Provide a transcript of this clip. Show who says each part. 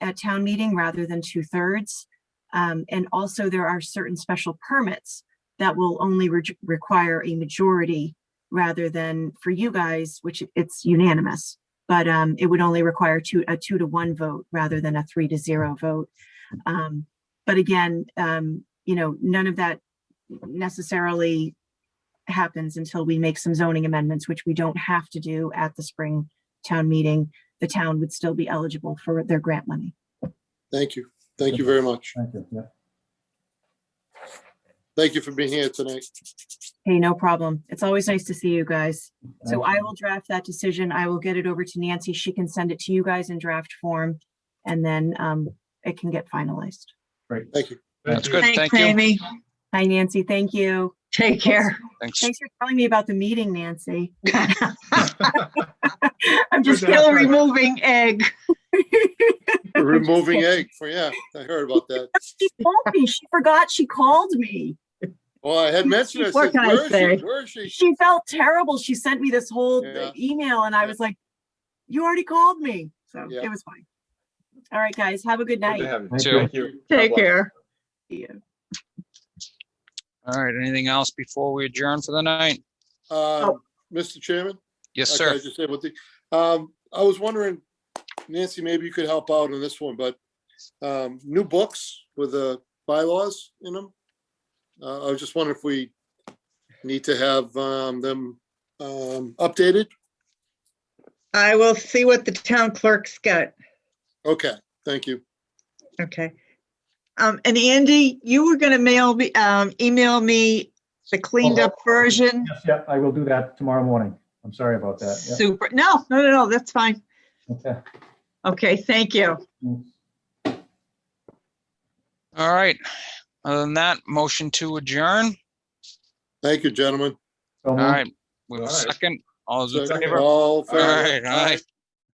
Speaker 1: at town meeting rather than two-thirds. Um, and also there are certain special permits that will only re- require a majority rather than for you guys, which it's unanimous. But, um, it would only require two, a two to one vote rather than a three to zero vote. Um, but again, um, you know, none of that necessarily happens until we make some zoning amendments, which we don't have to do at the spring town meeting. The town would still be eligible for their grant money.
Speaker 2: Thank you. Thank you very much.
Speaker 3: Thank you, yeah.
Speaker 2: Thank you for being here tonight.
Speaker 1: Hey, no problem. It's always nice to see you guys. So I will draft that decision. I will get it over to Nancy. She can send it to you guys in draft form. And then um, it can get finalized.
Speaker 2: Thank you.
Speaker 4: That's good. Thank
Speaker 5: Thanks,
Speaker 4: you.
Speaker 5: Amy.
Speaker 1: Hi, Nancy. Thank you.
Speaker 5: Take care.
Speaker 4: Thanks.
Speaker 1: Thanks for telling me about the meeting, Nancy. I'm just kidding.
Speaker 5: Still removing egg.
Speaker 2: Removing egg for, yeah, I heard about that.
Speaker 1: She told me, she forgot she called me.
Speaker 2: Well, I had mentioned, I
Speaker 5: What
Speaker 2: said,
Speaker 5: can I
Speaker 2: where is
Speaker 5: say?
Speaker 2: she? Where is she?
Speaker 1: She felt terrible. She sent me this whole uh,
Speaker 2: Yeah.
Speaker 1: email and I was like, you already called me. So
Speaker 2: Yeah.
Speaker 1: it was fine. All right, guys, have a good
Speaker 6: Good to
Speaker 1: night.
Speaker 6: have you.
Speaker 3: Thank
Speaker 4: you.
Speaker 6: Thank you.
Speaker 5: Take
Speaker 6: God bless.
Speaker 5: care.
Speaker 1: See you.
Speaker 4: All right, anything else before we adjourn for the night?
Speaker 2: Um,
Speaker 5: Oh.
Speaker 2: Mr. Chairman?
Speaker 4: Yes,
Speaker 2: Okay, I
Speaker 4: sir.
Speaker 2: just said what the, um, I was wondering, Nancy, maybe you could help out on this one, but, um, new books with the bylaws in them. Uh, I was just wondering if we need to have, um, them, um, updated?
Speaker 5: I will see what the town clerk's got.
Speaker 2: Okay, thank you.
Speaker 5: Okay. Um, and Andy, you were gonna mail me, um, email me the cleaned
Speaker 4: Oh.
Speaker 5: up version.
Speaker 3: Yes, yeah, I will do that tomorrow morning. I'm sorry about that. yeah.
Speaker 5: Super. No, no, no, no, that's fine.
Speaker 3: Okay. Mm.
Speaker 5: Okay, thank you.
Speaker 4: All right. Other than that, motion to adjourn.
Speaker 2: Thank you, gentlemen.
Speaker 3: So
Speaker 4: All
Speaker 3: moved.
Speaker 4: right. We have a
Speaker 6: All right.
Speaker 4: second. All those in
Speaker 2: Uh-huh. Second,
Speaker 4: favor? All
Speaker 2: All in favor?
Speaker 4: right, all right.